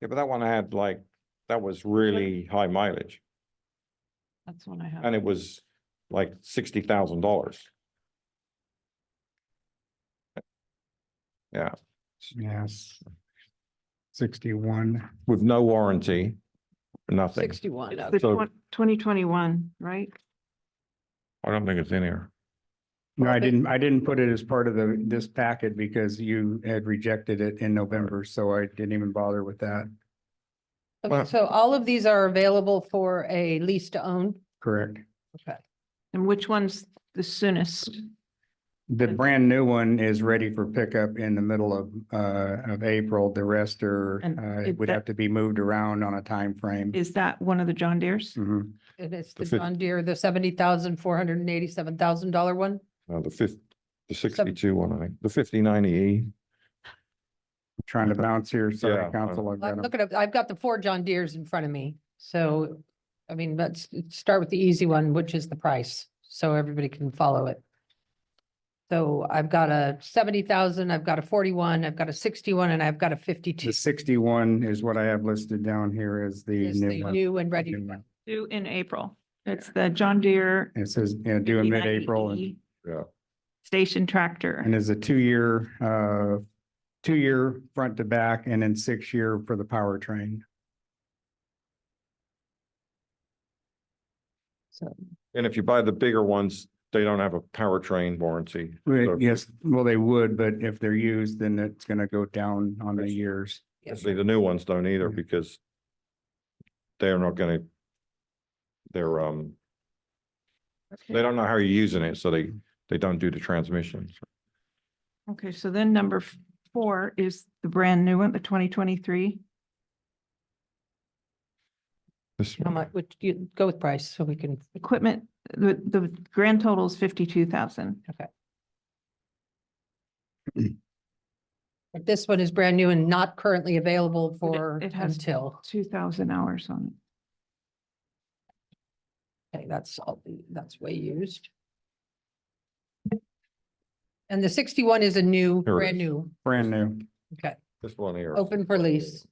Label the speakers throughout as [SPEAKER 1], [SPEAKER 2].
[SPEAKER 1] Yeah, but that one had like, that was really high mileage
[SPEAKER 2] That's one I
[SPEAKER 1] and
[SPEAKER 2] have.
[SPEAKER 1] it was like sixty thousand dollars.
[SPEAKER 3] Yes. Sixty-one,
[SPEAKER 1] with no warranty, nothing.
[SPEAKER 4] Sixty-one.
[SPEAKER 2] It's
[SPEAKER 4] okay.
[SPEAKER 2] the
[SPEAKER 1] so-
[SPEAKER 2] twen- 2021, right?
[SPEAKER 1] I don't think it's in here.
[SPEAKER 3] no, I
[SPEAKER 4] Okay.
[SPEAKER 3] didn't, I didn't put it as part of the, this packet because you had rejected it in November, so I didn't even bother with that,
[SPEAKER 1] Well-
[SPEAKER 4] Okay, so all of these are available for a lease to own.
[SPEAKER 3] correct?
[SPEAKER 4] Okay.
[SPEAKER 2] And which one's the soonest?
[SPEAKER 3] The
[SPEAKER 2] Okay.
[SPEAKER 3] brand new one is ready for pickup in the middle of, uh, of April. The rest are,
[SPEAKER 2] And
[SPEAKER 3] uh,
[SPEAKER 2] it-
[SPEAKER 3] would
[SPEAKER 2] that-
[SPEAKER 3] have to be moved around on a time frame.
[SPEAKER 2] Is that one of the John Deere's?
[SPEAKER 3] Mhm.
[SPEAKER 4] And it's
[SPEAKER 1] The
[SPEAKER 4] the
[SPEAKER 1] fif-
[SPEAKER 4] John Deere, the seventy thousand, four hundred and eighty-seven thousand dollar one.
[SPEAKER 1] Uh, the fifth, the
[SPEAKER 4] Seven-
[SPEAKER 1] sixty-two one, I think, the fifty-nine E.
[SPEAKER 3] Trying to bounce here,
[SPEAKER 1] Yeah,
[SPEAKER 3] sorry,
[SPEAKER 1] uh,
[SPEAKER 3] council. I've got
[SPEAKER 4] I'm
[SPEAKER 3] 'em.
[SPEAKER 4] looking up, I've got the four John Deeres in front of me. So, I mean, let's start with the easy one, which is the price, so everybody can follow it. So I've got a seventy thousand, I've got a forty-one, I've got a sixty-one, and I've got a fifty-two.
[SPEAKER 3] The sixty-one is what I have listed down here as the
[SPEAKER 4] Is the
[SPEAKER 3] new one.
[SPEAKER 4] new and ready. to
[SPEAKER 3] New
[SPEAKER 4] go.
[SPEAKER 3] one.
[SPEAKER 2] Due in April. It's the John Deere.
[SPEAKER 3] It says, you know, due in
[SPEAKER 2] 59E
[SPEAKER 3] mid-April and,
[SPEAKER 1] Yeah.
[SPEAKER 2] Station tractor.
[SPEAKER 3] and is a two-year, uh, two-year front to back and then six-year for the powertrain.
[SPEAKER 4] So
[SPEAKER 1] And if you buy the bigger ones, they don't have a powertrain warranty. So-
[SPEAKER 3] Well, Yes, well, they would, but if they're used, then it's gonna go down on the
[SPEAKER 1] Yes.
[SPEAKER 3] years.
[SPEAKER 4] yeah.
[SPEAKER 1] See, the new ones don't either
[SPEAKER 3] Yeah.
[SPEAKER 1] because they're not gonna, they're, um, they don't know how you're using it, so they, they don't do the transmission.
[SPEAKER 2] Okay, so then number f- four is the brand new one, the twenty twenty-three.
[SPEAKER 1] This-
[SPEAKER 4] How much, would you go with price so we can,
[SPEAKER 2] Equipment, the, the grand total is fifty-two thousand.
[SPEAKER 4] but this one is brand new and not currently available
[SPEAKER 2] But it-
[SPEAKER 4] for
[SPEAKER 2] it has-
[SPEAKER 4] until,
[SPEAKER 2] Two thousand hours on it.
[SPEAKER 4] okay, that's, all. that's way used. And the sixty-one is a new,
[SPEAKER 1] Here it
[SPEAKER 4] brand
[SPEAKER 1] is.
[SPEAKER 4] new,
[SPEAKER 3] Brand new.
[SPEAKER 4] okay,
[SPEAKER 1] This one here.
[SPEAKER 4] open for lease.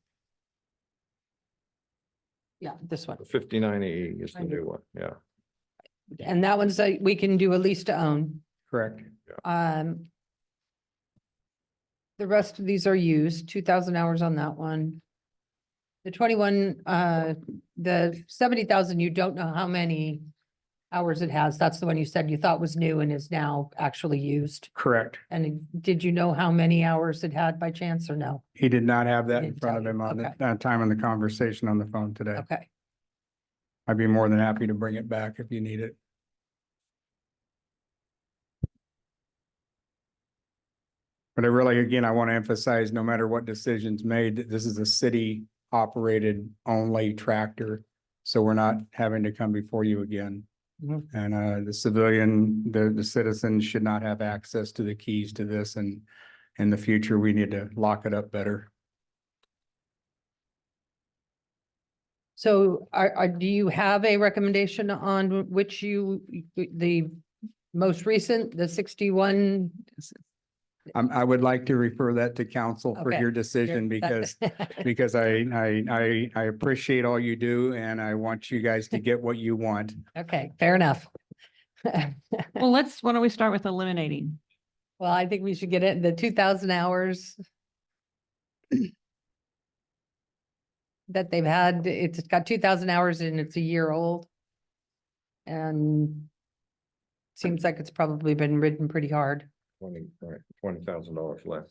[SPEAKER 4] Yeah, this one,
[SPEAKER 1] Fifty-nine E is the
[SPEAKER 4] Right.
[SPEAKER 1] new one, yeah.
[SPEAKER 4] and that one's, uh, we can do a lease to own,
[SPEAKER 3] Correct.
[SPEAKER 4] um. The rest of these are used, two thousand hours on that one. The twenty-one, uh, the seventy thousand, you don't know how many hours it has. That's the one you said you thought was new and is now actually used.
[SPEAKER 3] Correct.
[SPEAKER 4] And did you know how many hours it had by chance or no?
[SPEAKER 3] He did not have that in
[SPEAKER 4] Didn't
[SPEAKER 3] front
[SPEAKER 4] tell
[SPEAKER 3] of
[SPEAKER 4] you.
[SPEAKER 3] him on the,
[SPEAKER 4] Okay.
[SPEAKER 3] that time in the conversation on the phone today.
[SPEAKER 4] Okay,
[SPEAKER 3] I'd be more than happy to bring it back if you need it. But I really, again, I want to emphasize, no matter what decision's made, that this is a city operated only tractor. So we're not having to come before you again.
[SPEAKER 4] Mhm.
[SPEAKER 3] And uh, the civilian, the, the citizens should not have access to the keys to this and in the future, we need to lock it up better.
[SPEAKER 4] so are, are, do you have a recommendation on which you, the most recent, the sixty-one?
[SPEAKER 3] Um, I would like to refer that to council for
[SPEAKER 4] Okay.
[SPEAKER 3] your decision because because I, I, I, I appreciate all you do and I want you guys to get what you want.
[SPEAKER 4] Okay, fair enough.
[SPEAKER 2] Well, let's, why don't we start with eliminating?
[SPEAKER 4] Well, I think we should get it, the two thousand hours that they've had, it's got two thousand hours and it's a year old. And seems like it's probably been ridden pretty hard.
[SPEAKER 1] Twenty, right, twenty thousand dollars less.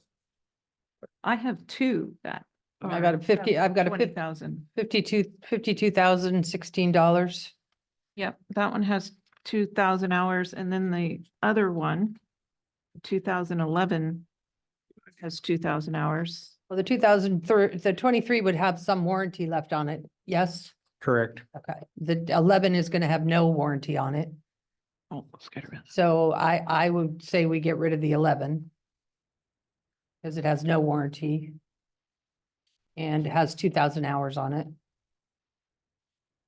[SPEAKER 2] I have two that.
[SPEAKER 4] I got a 50 I've got a 50
[SPEAKER 2] Twenty thousand.
[SPEAKER 4] Fifty-two, fifty-two thousand sixteen dollars.
[SPEAKER 2] Yep, that one has two thousand hours and then the other one, two thousand eleven has two thousand hours.
[SPEAKER 4] Well, the two thousand thir- the twenty-three would have some warranty left on it, yes?
[SPEAKER 3] Correct.
[SPEAKER 4] Okay, the eleven is gonna have no warranty on it.
[SPEAKER 2] Oh, let's get around.
[SPEAKER 4] So I, I would say we get rid of the eleven. Cause it has no warranty. And it has two thousand hours on it.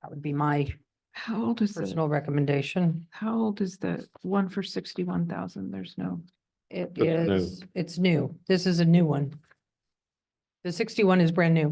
[SPEAKER 4] That would be my
[SPEAKER 2] How old is the,
[SPEAKER 4] personal recommendation.
[SPEAKER 2] how old is the one for sixty-one thousand? There's no,
[SPEAKER 4] It
[SPEAKER 1] That's new.
[SPEAKER 4] is, it's new. This is a new one. The sixty-one is brand new.